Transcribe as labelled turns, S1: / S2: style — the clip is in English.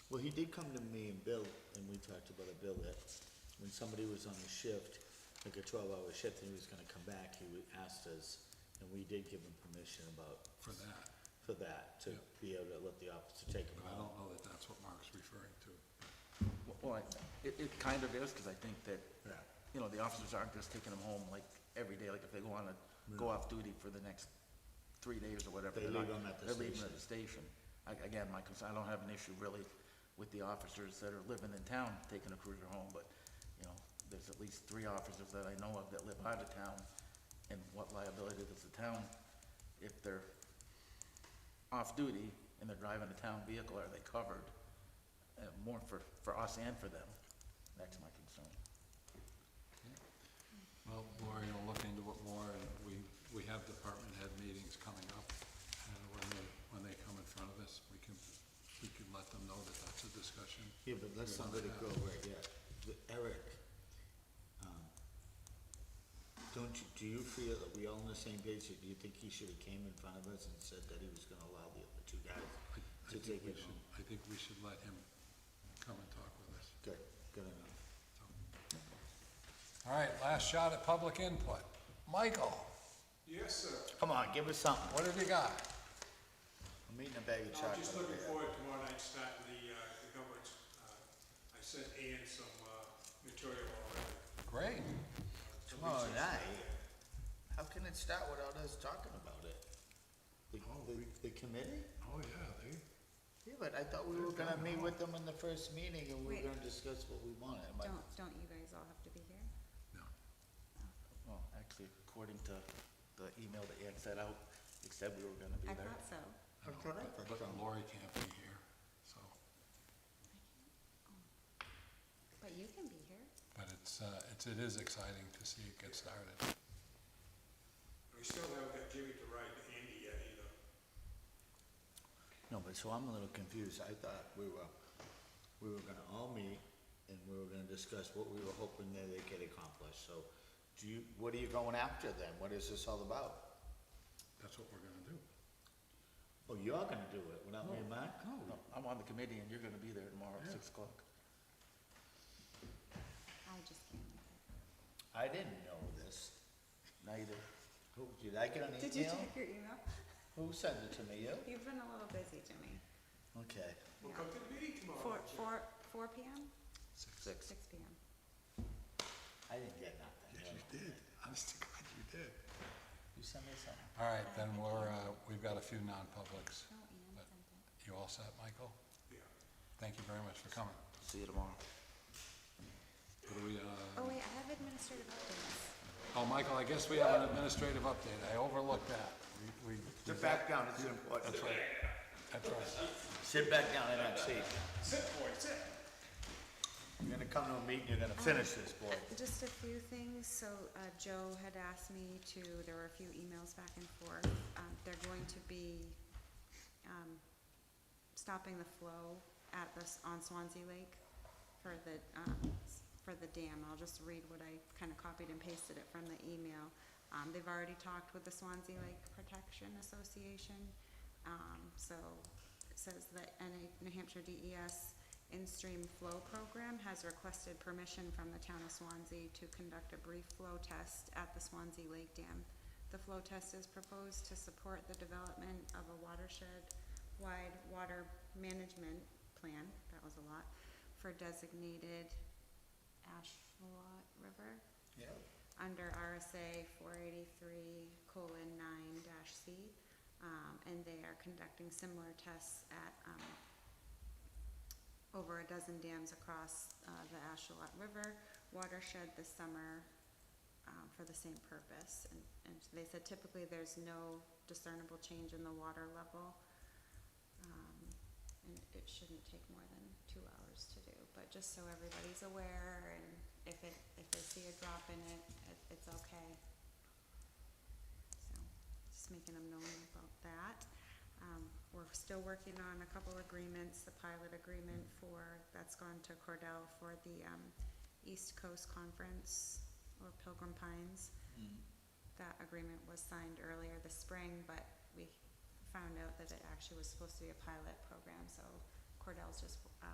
S1: Well, he did come to me and Bill, and we talked about it, Bill, that when somebody was on a shift, like a twelve-hour shift, and he was gonna come back, he would- asked us, and we did give him permission about,
S2: for that.
S1: for that,
S2: Yeah.
S1: to be able to let the officer take him
S2: But I
S1: out.
S2: don't know that that's what Mark's referring to.
S3: Well, I- it, it kind of is, because I think that,
S1: Yeah.
S3: you know, the officers aren't just taking them home like every day, like if they go on a, go off duty for the next three days or whatever.
S1: They
S3: they're not-
S1: leave 'em at the
S3: They're leaving at
S1: station.
S3: the station. I- Again, my concern, I don't have an issue really with the officers that are living in town taking a cruiser home, but, you know, there's at least three officers that I know of that live out of town, and what liability does the town, if they're off duty and they're driving a town vehicle, are they covered? Uh, More for, for us and for them. That's my concern.
S2: Well, Lori will look into it more, and we, we have department head meetings coming up, and when they, when they come in front of us, we can, we can let them know that that's a discussion.
S1: Yeah, but let's not let it go right yet. The- Eric, um, don't you, do you feel that we all on the same page, or do you think he should've came in front of us and said that he was gonna allow the other two guys
S2: I-
S1: to
S2: I think
S1: take
S2: we
S1: it
S2: should,
S1: home?
S2: I think we should let him come and talk with us.
S1: Good, good enough.
S2: All right, last shot at public input. Michael,
S4: Yes, sir.
S1: Come on, give us something.
S2: what have you got?
S1: I'm eating a bag of
S4: I'm
S1: chocolate.
S4: just looking
S1: over here.
S4: forward to tomorrow night starting the, uh, the government. uh, I sent Ann some, uh, material already.
S2: Great.
S1: Tomorrow night? How can it start without us talking about it? The, the, the committee?
S2: Oh, yeah, they,
S1: Yeah, but I thought we were gonna meet with them in the first meeting and we were
S5: Wait.
S1: gonna discuss what we wanted. Am I-
S5: Don't, don't you guys all have to be here?
S3: Well, actually, according to the email that Ann sent out, it said we were gonna be
S5: I
S3: there.
S5: thought so.
S1: I thought I thought
S2: but
S1: so.
S2: Lori can't be here, so,
S5: But you can be here.
S2: but it's, uh, it's, it is exciting to see it get started.
S4: We still haven't got Jimmy to ride to Andy yet either.
S1: No, but so I'm a little confused. I thought we were, we were gonna all meet and we were gonna discuss what we were hoping that they could accomplish. So do you, what are you going after then? What is this all about?
S2: That's what we're gonna do.
S1: Oh, you're gonna do it without me and Mark?
S3: No, I'm on the committee and you're gonna be there tomorrow at six o'clock.
S5: I just can't. make it.
S1: I didn't know this.
S3: Neither.
S1: Who, did I get an
S5: Did you
S1: email?
S5: check your email?
S1: Who sent it to me? You?
S5: You've been a little busy, Jimmy.
S1: Okay.
S4: Well, come to the meeting tomorrow.
S5: Four,
S4: Jim.
S5: four, four PM?
S3: Six.
S5: Six PM.
S1: I didn't get nothing.
S2: Yes, you did. Honest to God, you did.
S1: You sent me something?
S2: All right, then we're, uh, we've got a few non-publics.
S5: No, Ann sent it.
S2: You all set, Michael?
S4: Yeah.
S2: Thank you very much for coming.
S3: See you tomorrow.
S2: What do we, uh,
S5: Oh, wait, I have administrative updates.
S2: oh, Michael, I guess we have an administrative update. I overlooked that. We, we,
S1: Sit back down, it's important.
S2: that's right. That's right.
S1: Sit back down in that seat.
S4: Sit, boy, sit.
S1: You're gonna come to a meeting, you're gonna finish this, boy.
S5: Just a few things. So uh, Joe had asked me to, there were a few emails back and forth. Um, They're going to be um, stopping the flow at the, on Swansea Lake for the, um, for the dam. I'll just read what I kind of copied and pasted it from the email. Um, They've already talked with the Swansea Lake Protection Association. Um, So it says that NA New Hampshire DES in-stream flow program has requested permission from the town of Swansea to conduct a brief flow test at the Swansea Lake Dam. The flow test is proposed to support the development of a watershed-wide water management plan, that was a lot, for designated Ashuelot River
S1: Yeah.
S5: under RSA 483 colon 9 dash C. um, And they are conducting similar tests at um, over a dozen dams across uh, the Ashuelot River watershed this summer um, for the same purpose. And- And they said typically there's no discernible change in the water level. Um, And it shouldn't take more than two hours to do, but just so everybody's aware and if it, if they see a drop in it, it- it's okay. So, just making them know about that. Um, We're still working on a couple agreements, the pilot agreement for, that's gone to Cordell for the um, East Coast Conference or Pilgrim Pines. That agreement was signed earlier this spring, but we found out that it actually was supposed to be a pilot program, so Cordell's just uh,